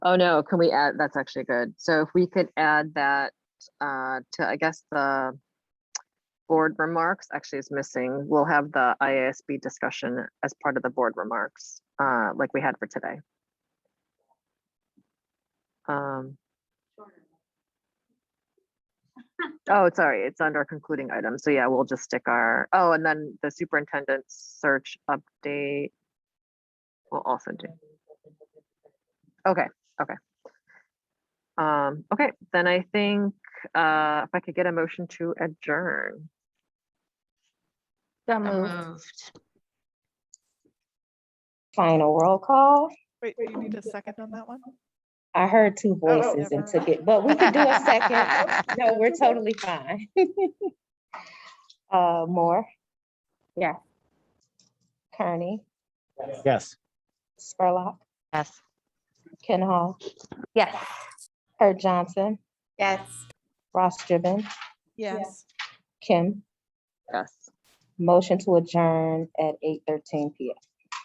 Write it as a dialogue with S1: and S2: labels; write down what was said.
S1: Oh, no, can we add, that's actually good. So if we could add that uh to, I guess, the board remarks actually is missing. We'll have the IASB discussion as part of the board remarks, uh, like we had for today. Um. Oh, it's sorry, it's under concluding items. So yeah, we'll just stick our, oh, and then the superintendent search update. We'll also do. Okay, okay. Um, okay, then I think, uh, if I could get a motion to adjourn.
S2: So moved.
S3: Moved.
S4: Final roll call.
S5: Wait, do you need a second on that one?
S4: I heard two
S5: Oh,
S4: voices and
S5: never
S4: took it, but we can do a second. No, we're totally fine. Uh, Moore? Yeah. Kearney,
S6: Yes.
S4: Spurlock,
S3: Yes.
S4: Ken Hall,
S2: Yes.
S4: Kurt Johnson,
S2: Yes.
S4: Ross Driven,
S5: Yes.
S4: Kim.
S1: Yes.
S4: Motion to adjourn at eight thirteen P M.